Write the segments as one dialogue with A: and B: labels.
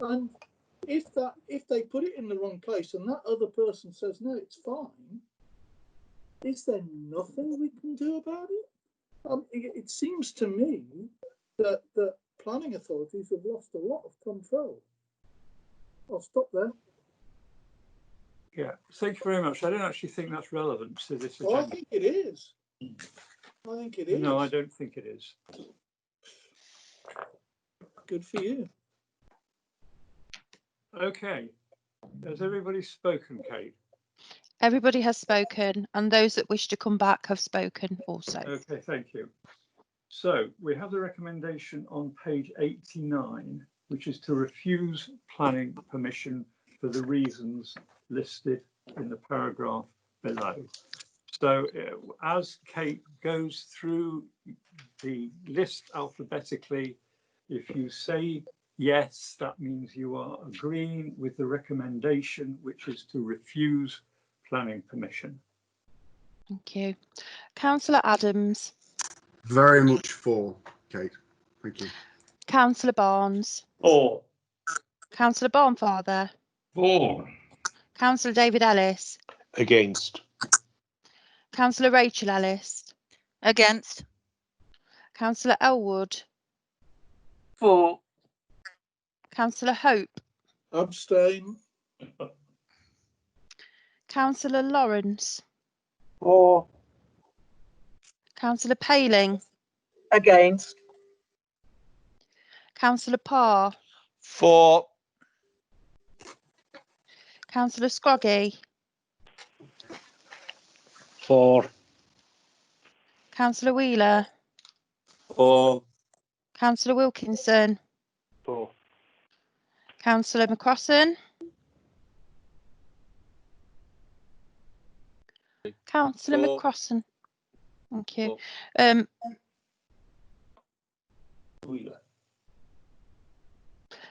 A: and if that if they put it in the wrong place and that other person says no, it's fine. Is there nothing we can do about it? Um, it, it seems to me that that planning authorities have lost a lot of control. I'll stop there.
B: Yeah, thank you very much. I don't actually think that's relevant to this
A: Well, Oh, I
B: agenda.
A: think it is. I think it is.
B: No, I don't think it is.
A: Good for you.
B: Okay. Has everybody spoken, Kate?
C: Everybody has spoken, and those that wish to come back have spoken also.
B: Okay, thank you. So we have the recommendation on page 89, which is to refuse planning permission for the reasons listed in the paragraph below. So uh, as Kate goes through the list alphabetically, if you say yes, that means you are agreeing with the recommendation, which is to refuse planning permission.
C: Thank you. Councillor Adams,
D: Very much for, Kate. Thank you.
C: Councillor Barnes,
E: Four.
C: Councillor Barnfather,
E: Four.
C: Councillor David Ellis,
F: against,
C: Councillor Rachel Ellis,
G: Against.
C: Councillor Elwood,
G: Four.
C: Councillor Hope,
A: Abstain.
C: Councillor Lawrence,
G: Four.
C: Councillor Paling,
G: Against.
C: Councillor Parr,
F: for,
C: Councillor Scroggy,
F: for,
C: Councillor Wheeler,
E: Four.
C: Councillor Wilkinson,
E: Four.
C: Councillor McCrossan, Councillor
E: Four.
C: McCrossan. Thank you. Um,
E: Wheeler.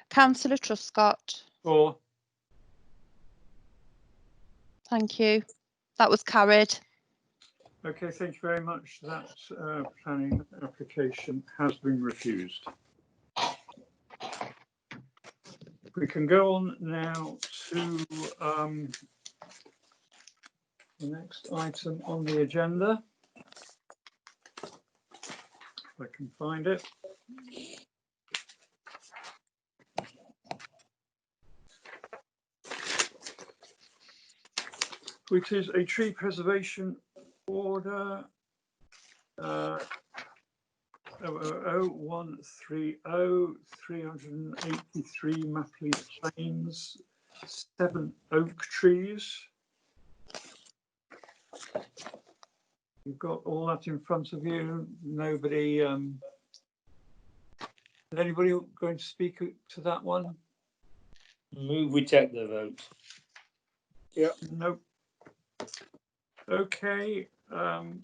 C: Councillor Truscott,
B: Or
C: thank you. That was carried.
B: Okay, thank you very much. That uh, planning application has been refused. We can go on now to um, the next item on the agenda. If I can find it. Which is a tree preservation Order uh, oh, 00130, oh, 383 Mapley Plains, seven oak trees. You've got all that in front of you. Nobody, um, is anybody going to speak to that one?
E: Move we take the vote.
B: Nope. Okay, um.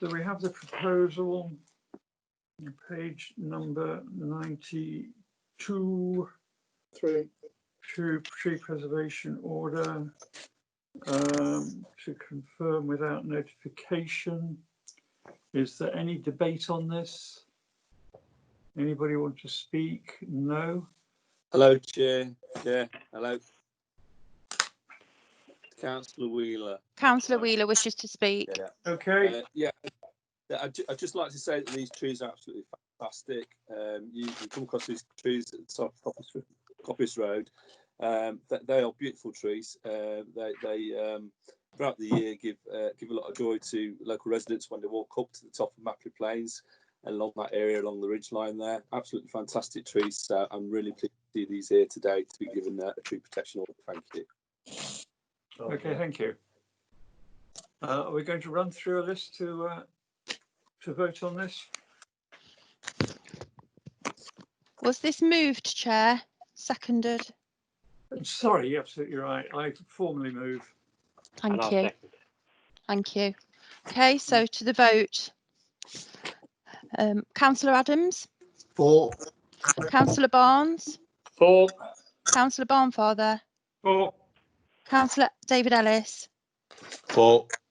B: So we have the proposal, on page number ninety-two
A: Three.
B: true tree preservation order um, to confirm without notification. Is there any debate on this? Anybody want to speak? No?
E: Hello, Chair. Chair, hello. Councillor Wheeler.
C: Councillor Wheeler wishes to speak.
B: Okay,
E: Uh, yeah, yeah, I'd, ju- I'd just like to say that these trees are absolutely fantastic. Um, you can come across these trees at the top of Coppice, Ro- Coppice Road. Um, th- they are beautiful trees. Um they they um, throughout the year give uh, give a lot of joy to local residents when they walk up to the top of Mapley Plains and along that area along the ridge line there. Absolutely fantastic trees. So I'm really pleased to see these here today to be given uh, a tree protection order. Thank you.
B: okay, thank you. Uh, Are we going to run through a list to, uh, to vote on this?
C: Was this moved, Chair? Seconded?
B: Sorry, you're absolutely right. I formally move.
C: Thank you. Thank you. Okay, so to the vote. Um, Councillor Adams,
D: For,
C: Councillor Barnes,
E: Four.
C: Councillor Barnfather,
B: Four.
C: Councillor David Ellis,
F: for,